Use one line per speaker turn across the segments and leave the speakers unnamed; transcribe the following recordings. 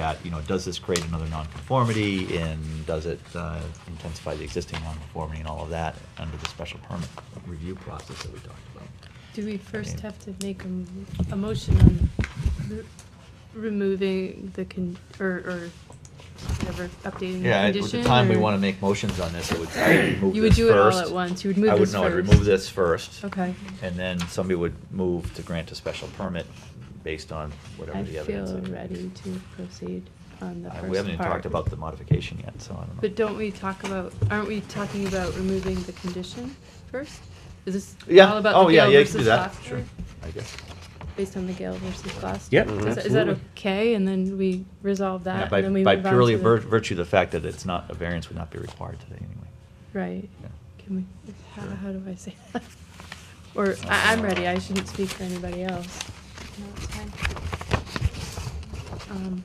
at, you know, does this create another nonconformity and does it uh, intensify the existing nonconformity and all of that under the special permit review process that we talked about?
Do we first
Okay.
have to make a, m- a motion on re- removing the con, or, or whatever, updating
Yeah,
the
at
condition?
the time we
or-
want to make motions on this, it would, I would move
You would
this
do it all
first.
at once, you would move
I would,
this first.
no, I'd remove this first.
Okay.
And then somebody would move to grant a special permit based on whatever
I
the evidence.
feel
is.
ready to proceed on the
Uh,
first part.
We haven't even talked about the modification yet, so I don't know.
But don't we talk about, aren't we talking about removing the condition first? Is this
Yeah,
all about
oh,
the
yeah,
Gale
yeah, you can do
versus
that,
Gloucester?
sure, I guess.
Based on the Gale versus Gloucester?
Yep,
Is that- is that
absolutely.
okay, and then we resolve
Yeah,
that,
by-
and then we move
By
on to the?
purely vir- virtue of the fact that it's not, a variance would not be required today anyway.
Right.
Yeah.
Can we, how,
Sure. Uh,
how do I say that? Or, I, I'm ready, I shouldn't speak for anybody else.
No, it's fine.
Um,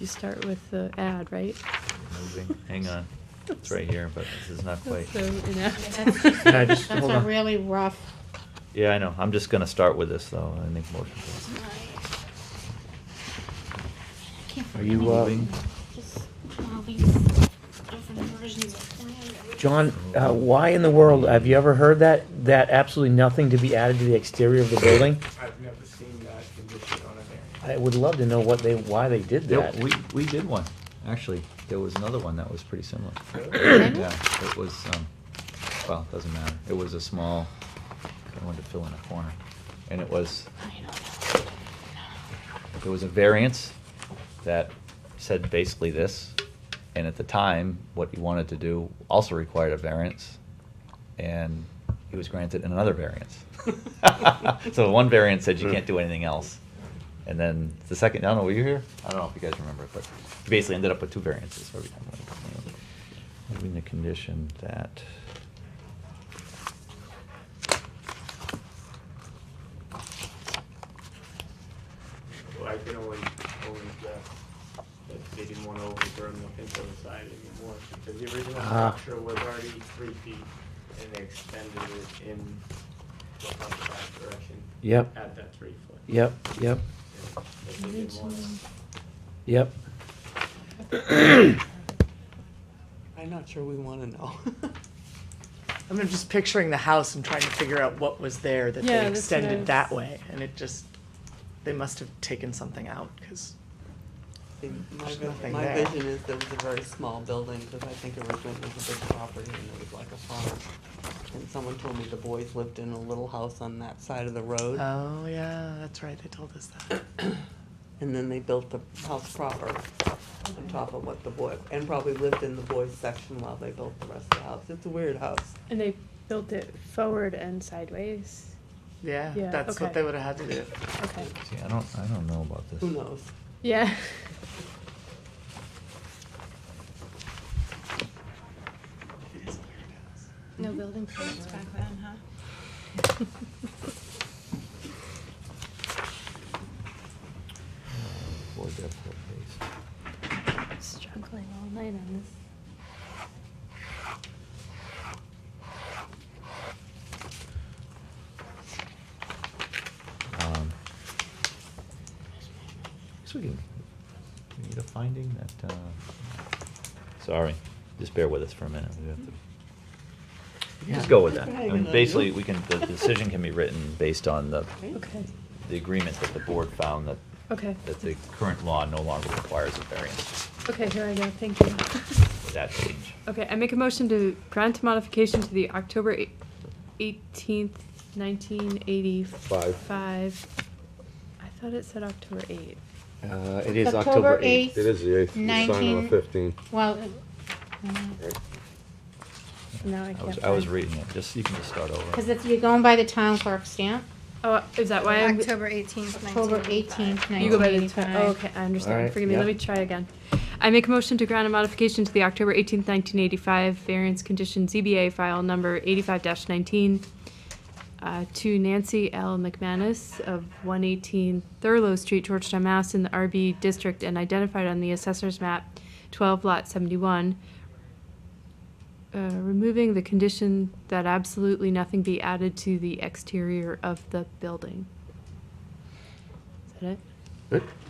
You start with the ad, right?
Moving, hang on, it's right here, but this is not quite.
So
That's-
Yeah, just
That's
hold
a
on.
really rough.
Yeah, I know, I'm just gonna start with this though, I think motion.
I
for this.
can't
Are you,
find
uh,
anything. Just all these different versions of plans.
John, uh, why in the world, have you ever heard that, that absolutely nothing to be added to the exterior of the building?
I've never seen that condition on a variance.
I would love to know what they, why they did
There-
that.
We, we did one, actually, there was another one that was pretty similar.
Really?
Yeah, it was, um, well, doesn't matter, it was a small, I wanted to fill in a corner, and it was,
I know.
there was a variance that said basically this, and at the time, what he wanted to do also required a variance, and he was granted another variance. So one variance said you can't do anything else, and then the second, I don't know, were you here? I don't know if you guys remember, but he basically ended up with two variances every time. Moving the condition that.
Well, I can only, only guess that they didn't want to overturn the pinto side anymore, because the original
Ah.
structure was already three feet, and they extended it in the upside direction.
Yep.
At that three foot.
Yep, yep,
Yeah, but they didn't wanna-
yep.
I'm not sure we want to know. I'm just picturing the house and trying to figure out what was there that
Yeah,
they
that's what I
extended
was-
that way, and it just, they must have taken something out, because,
In My,
There's
vi-
nothing
my
there.
vision is there was a very small building, because I think originally it was a big property and it was like a farm. And someone told me the boys lived in a little house on that side of the road,
Uh.
oh, yeah, that's right, they told us that.
and then they built the house proper on top of what the boy, and probably lived in the boys section while they built the rest of the house. It's a weird house.
And they built it forward and sideways,
Yeah,
Yeah,
that's
okay.
what they would have had to do.
okay,
See, I don't, I don't know about this.
Who knows?
yeah.
It is a weird house.
No building permits back then, huh?
Board depth or base.
Struggling all night on this.
Um, So we can, we need a finding that, uh, sorry, just bear with us for a minute. We have to Just go with that. I mean, basically, we can, the decision can be written based on the,
Okay,
the agreement that the board found that,
okay,
that the current law no longer requires a variance
okay, here I go, thank you.
for that change.
Okay, I make a motion to grant a modification to the October eighteenth, nineteen eighty-five. Five. I thought it said October eighth.
Uh, it is
October
October eighth.
8th,
It is the eighth, you sign on the
19
fifteenth.
Well, uh, it-
Now I
I was,
can't.
I was
find-
reading it, just, you can just start over.
cause if you're going by the town clerk stamp,
Oh, is that why I'm?
October eighteenth,
October eighteenth,
You go by the,
nineteen
twen- oh,
eighty-five.
okay, I understand.
Alright,
Forgive me, let
yeah.
me try again. I make a motion to grant a modification to the October eighteenth, nineteen eighty-five variance condition ZBA file number eighty-five nineteen uh, to Nancy L. McManus of one eighteen Thurlow Street, Georgetown, Mass. in the RB district and identified on the assessor's map twelve lot seventy-one. Uh, removing the condition that absolutely nothing be added to the exterior of the building. Is that it?